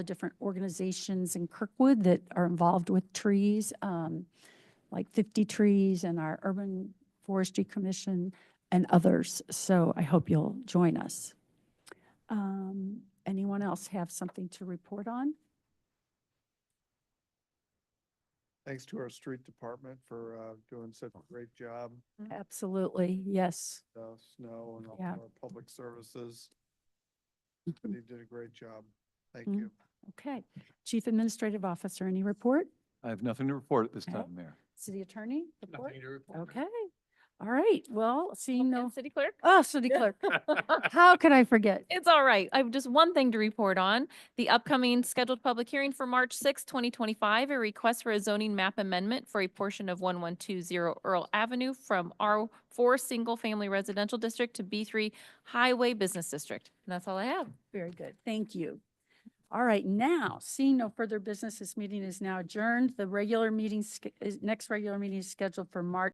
the different organizations in Kirkwood that are involved with trees, um, like 50 Trees and our Urban Forestry Commission and others. So I hope you'll join us. Um, Anyone else have something to report on? Thanks to our street department for uh, doing such a great job, Absolutely, yes. uh, snow and all Yeah. of our public services. They did a great job. Thank Mm. you. Okay. Chief Administrative Officer, any report? I have nothing to report at this Okay. time, Mayor. City Attorney? report? to report. Okay. All right. Well, seeing And no, City clerk? oh, City Clerk, how could I forget? It's all right. I have just one thing to report on. The upcoming scheduled public hearing for March sixth, twenty twenty-five, a request for a zoning map amendment for a portion of one one two zero Earl Avenue from R four single family residential district to B three highway business district. And that's all I have. Very good. Thank you. All right, now, seeing no further business, this meeting is now adjourned. The regular meeting, sch- is- next regular meeting is scheduled for March